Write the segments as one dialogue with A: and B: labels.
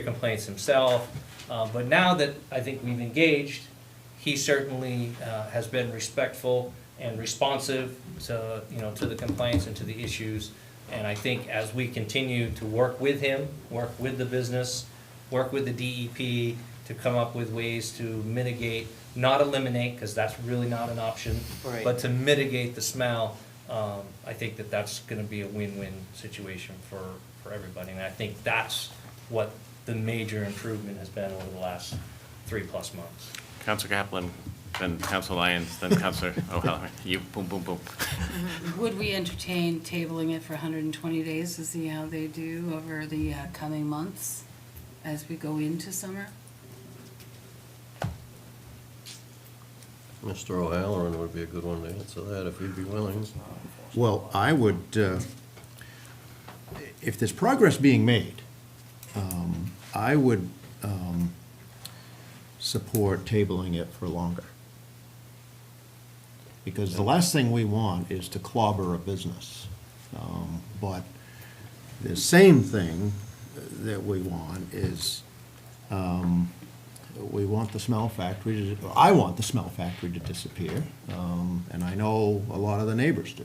A: the complaints himself. Uh, But now that I think we've engaged, he certainly uh, has been respectful and responsive to, you know, to the complaints and to the issues. And I think as we continue to work with him, work with the business, work with the DEP to come up with ways to mitigate, not eliminate, because that's really not an option,
B: Right.
A: but to mitigate the smell, um, I think that that's gonna be a win-win situation for, for everybody. And I think that's what the major improvement has been over the last three-plus months.
C: Counselor Kaplan, then Counselor Lyons, then Counselor O'Halloran. You, boom, boom, boom.
D: Would we entertain tabling it for 120 days to see how they do over the uh, coming months as we go into summer?
E: Mr. O'Halloran would be a good one to answer that, if he'd be willing.
F: Well, I would, uh, if there's progress being made, um, I would um, support tabling it for longer. Because the last thing we want is to clobber a business. Um, But the same thing that we want is, um, we want the smell factory, to I want the smell factory to disappear, um, and I know a lot of the neighbors do.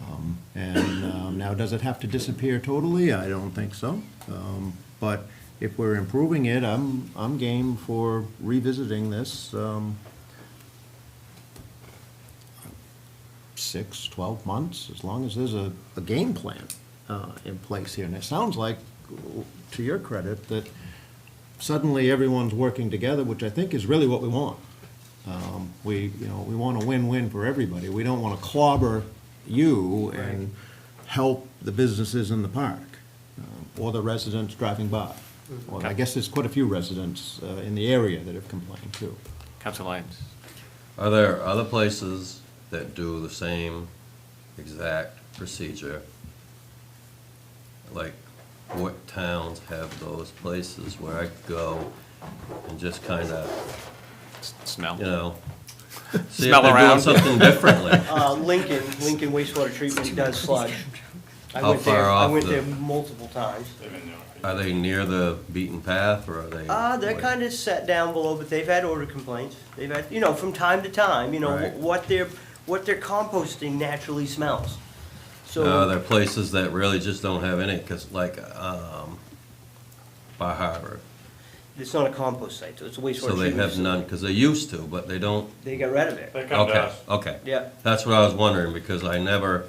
F: Um, And um, now, does it have to disappear totally? I don't think so. Um, But if we're improving it, I'm, I'm game for revisiting this um, six, 12 months, as long as there's a, a game plan uh, in place here. And it sounds like, to your credit, that suddenly everyone's working together, which I think is really what we want. Um, We, you know, we want a win-win for everybody. We don't want to clobber you and help the businesses in the park um, or the residents driving by. Well, I guess there's quite a few residents uh, in the area that have complained too.
C: Counselor Lyons.
E: Are there other places that do the same exact procedure? Like, what towns have those places where I could go and just kind of,
C: S- Smell.
E: you know, see if
C: Smell
E: they're doing
C: around.
E: something differently?
B: Uh, Lincoln, Lincoln wastewater treatment does sludge. I
E: How
B: went there-
E: far
B: I
E: off
B: went
E: the-
B: there multiple times.
E: Are they near the beaten path, or are they?
B: Uh, they're kind of set down below, but they've had odor complaints. They've had, you know, from time to time, you know,
E: Right.
B: wh- what their, what their composting naturally smells.
E: No,
B: So,
E: there are places that really just don't have any, because like, um, Bar Harbor,
B: it's not a compost site, so it's a wastewater
E: so
B: treatment.
E: they have
B: facility.
E: none, because they used to, but they don't,
B: They got rid of it.
G: They come to
E: okay,
G: us.
E: okay.
B: Yeah.
E: That's what I was wondering, because I never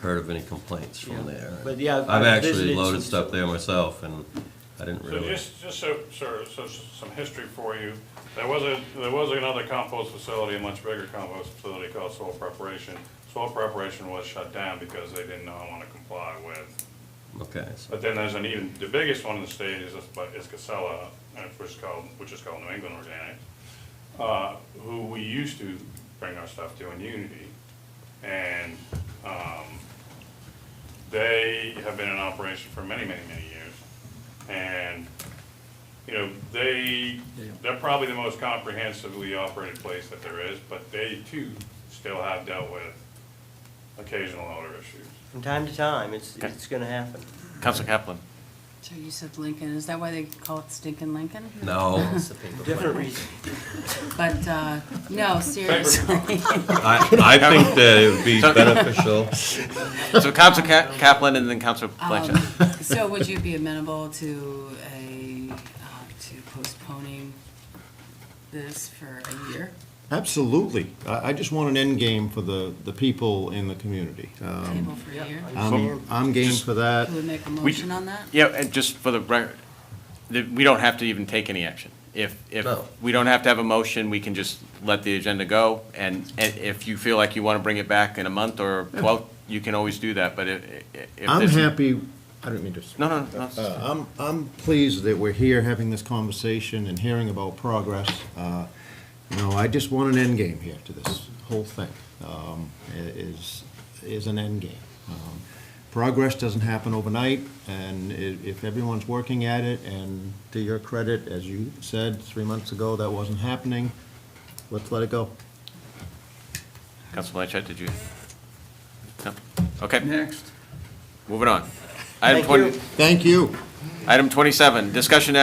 E: heard of any complaints from
B: Yeah.
E: there.
B: But yeah, I've-
E: I've
B: I've
E: actually
B: visited some-
E: loaded stuff there myself, and I didn't
G: So
E: realize.
G: just, just so, sir, so s- some history for you. There was a, there was another compost facility, a much bigger compost facility called Soil Preparation. Soil Preparation was shut down because they didn't know want to comply with.
E: Okay, so,
G: But then there's an even, the biggest one in the state is, this- but is Casella, uh, which is called, which is called New England Organic, uh, who we used to bring our stuff to in Unity. And, um, they have been in operation for many, many, many years. And, you know, they, they're probably the most comprehensively operated place that there is, but they too still have dealt with occasional odor issues.
B: From time to time, it's,
C: Okay.
B: it's gonna happen.
C: Counselor Kaplan.
D: So you said Lincoln, is that why they call it stinking Lincoln?
E: no,
B: Different reason.
D: But, uh, no, seriously.
E: I, I think that it would be beneficial.
C: So Counselor Ka- Kaplan and then Counselor Blanchard.
D: Um, So would you be amenable to a, uh, to postponing this for a year?
F: Absolutely. I, I just want an end game for the, the people in the community. Um,
D: Table for a year?
F: I'm, I'm game for that.
D: Can we make a motion on that?
C: Yeah, and just for the record, the- we don't have to even take any action. If, if,
E: No.
C: we don't have to have a motion, we can just let the agenda go. And, and if you feel like you want to bring it back in a month or 12, you can always do that, but if. if
F: I'm
C: there's-
F: happy, I don't mean to.
C: No, no, no. it's-
F: Uh, I'm, I'm pleased that we're here having this conversation and hearing about progress. Uh, You know, I just want an end game here to this whole thing, um, i- is, is an end game. Um, Progress doesn't happen overnight, and i- if everyone's working at it, and to your credit, as you said, three months ago, that wasn't happening, let's let it go.
C: Counselor Blanchard, did you? No? Okay,
H: Next.
C: moving on. Item
B: Thank you.
C: 20
F: Thank you.
C: Item twenty-seven, discussion action